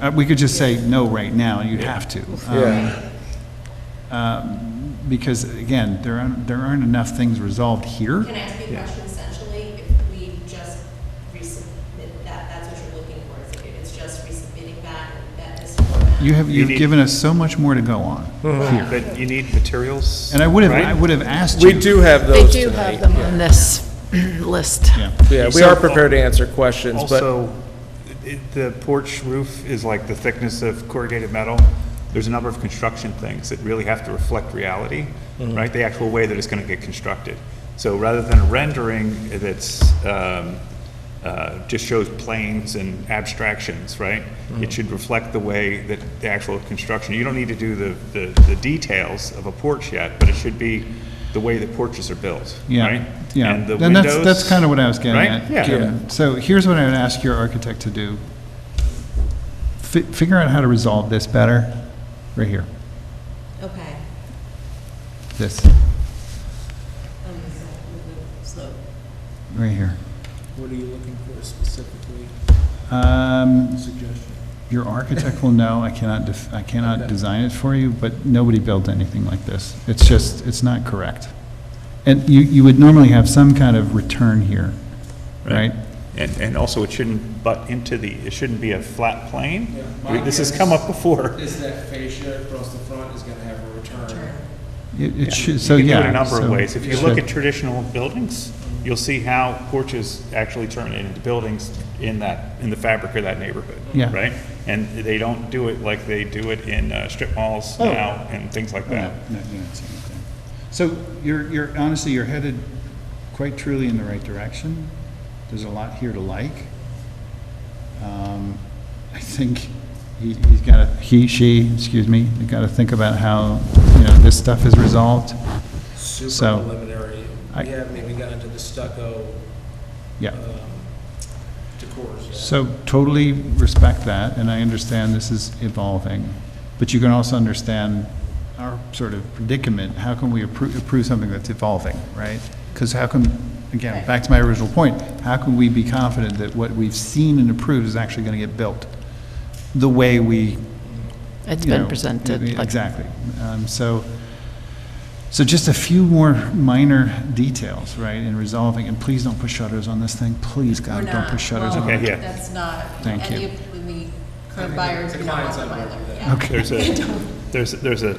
Uh, We could just say no right now, you have to. um, Yeah. Because again, there aren't, there aren't enough things resolved here. Can I ask you a Yeah. question essentially? If we just resubmit that, that's what you're looking for, is if it's just resubmitting that, that is format? You have, You you've need- given us so much more to go on. But you need materials. And I would have, I right? would have asked you. We do have They those do tonight. have them on this list. Yeah. Yeah, we are prepared to answer questions, but Also, it- the porch roof is like the thickness of corrugated metal. There's a number of construction things that really have to reflect reality, Mm-hmm. right? The actual way that it's going to get constructed. So rather than a rendering that's, um, uh, just shows planes and abstractions, right? Mm-hmm. It should reflect the way that the actual construction, you don't need to do the, the the details of a porch yet, but it should be the way that porches are built, Yeah, right? yeah. And the And that's- windows, That's kind of what I was getting right? at. Yeah. Jim. So here's what I would ask your architect to do. Fi- Figure out how to resolve this better, right here, Okay. this, Um, so we'll go Uh, Slow. right here. What are you looking for specifically, Um, suggestion? Your architect will know, I cannot, def- I cannot design it for you, but nobody built anything like this. It's just, it's not correct. And you, you would normally have some kind of return here, right? And, and also, it shouldn't butt into the, it shouldn't be a flat plane. This has come up before. Is that fascia across the front is gonna have a return? It it should, so, You can yeah. do it a number of so ways. If you it look should. at traditional buildings, you'll see how porches actually turn into buildings in that, in the fabric of that neighborhood. Yeah. Right? And they don't do it like they do it in uh, strip malls Oh. now and things like No, that. no, you don't see anything. So you're, you're, honestly, you're headed quite truly in the right direction. There's a lot here to like. Um, I think he- he's got to, he, she, excuse me, you got to think about how, you know, this stuff is resolved. So- Super preliminary, I- we haven't even gotten to the stucco, Yeah. um, decors yet. So totally respect that, and I understand this is evolving, but you can also understand our sort of predicament. How can we approve, approve something that's evolving, right? Because how can, again, back to my original point, how can we be confident that what we've seen and approved is actually going to get built? The way we It's you been know, presented. like- Exactly. Um, So, so just a few more minor details, right, in resolving, and please don't put shutters on this thing. Please, We're God, don't not- put shutters well, on Okay, it. yeah. That's not, Thank any you. of, when we, current buyers, we The don't want clients the aren't gonna Mylar, do yeah. that. Okay, There's a, there's, there's a,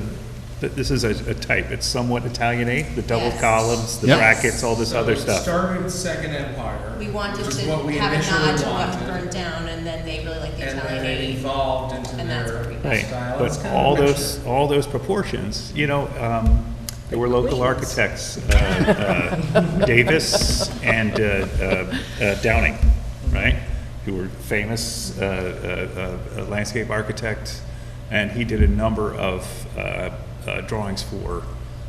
th- this is a a type. It's somewhat Italianate, the double Yes. columns, the Yep. brackets, all this So other it stuff. Started with Second Empire. We wanted which is to what we have a nod to initially what wanted, burned down, and then they really like the And then it Italianate. evolved into and that's where we got Right, their style. It's but kind of all a mixture. those, all those proportions, you know, um, there were local architects, uh, uh, Davis and uh, uh, uh, Downing, right? Who were famous uh, uh, uh, landscape architect, and he did a number of uh, uh, drawings for,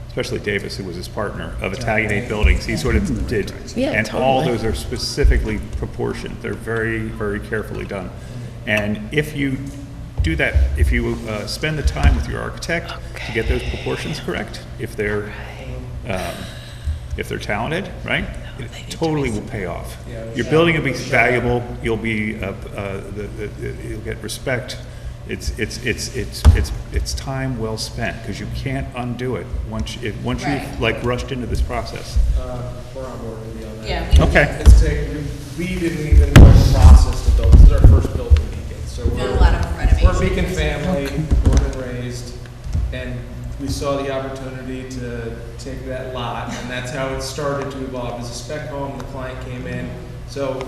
especially Davis, who was his partner, of Italianate buildings, he sort of did. Yeah, And all totally. those are specifically proportioned, they're very, very carefully done. And if you do that, if you uh, spend the time with your architect to get those proportions correct, if they're, um, if they're talented, right? It totally will pay off. Yeah. Your building will be valuable, you'll be, uh, uh, the- the- you'll get respect. It's, it's, it's, it's, it's, it's time well spent, because you can't undo it once, if, once you've Right. like rushed into this process. Uh, We're on board with you on that. Yeah. Okay. It's taken, we didn't even know the process to build, this is our first build in Beacon, so we're. Done a lot of renovation. We're Beacon family, born and raised, and we saw the opportunity to take that lot, and that's how it started to evolve, as a spec home, the client came in. So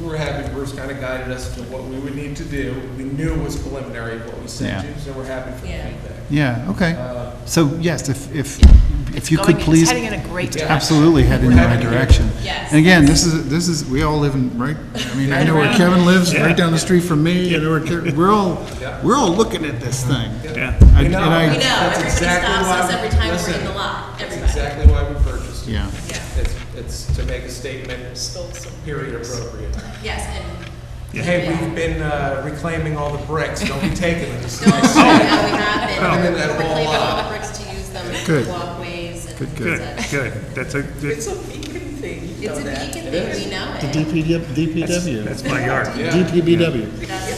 we were happy, Bruce kind of guided us to what we would need to do, we knew it was preliminary what we sent Yeah. you, so we're happy for the Yeah. feedback. Yeah, okay. Uh, So, yes, if, if, if you Going- could it's please. heading in a great Yeah. Absolutely head in the right direction. Yes. And again, this is, this is, we all live in, right, I mean, I know where Kevin lives, right down the street from me, I know where, Ke- we're all, Yeah. we're all looking at this thing. Yeah. I- We and know. I- We know, That's everybody exactly stops why us we- every time we're listen, in the lot, That's everybody. exactly why we purchased it. Yeah. Yeah. It's, it's to make a statement, period appropriate. Yes, and Hey, we've been uh, reclaiming all the bricks, don't be taking them. Just No, no, we Oh. have Clean it. that We're wall cleaning all up. the bricks to use them Good. as walkways and Good, things good. like that. Good, that's a, It's that's a beacon thing, we know The it. DPW, DPW, my yard. Yeah. DPW. That's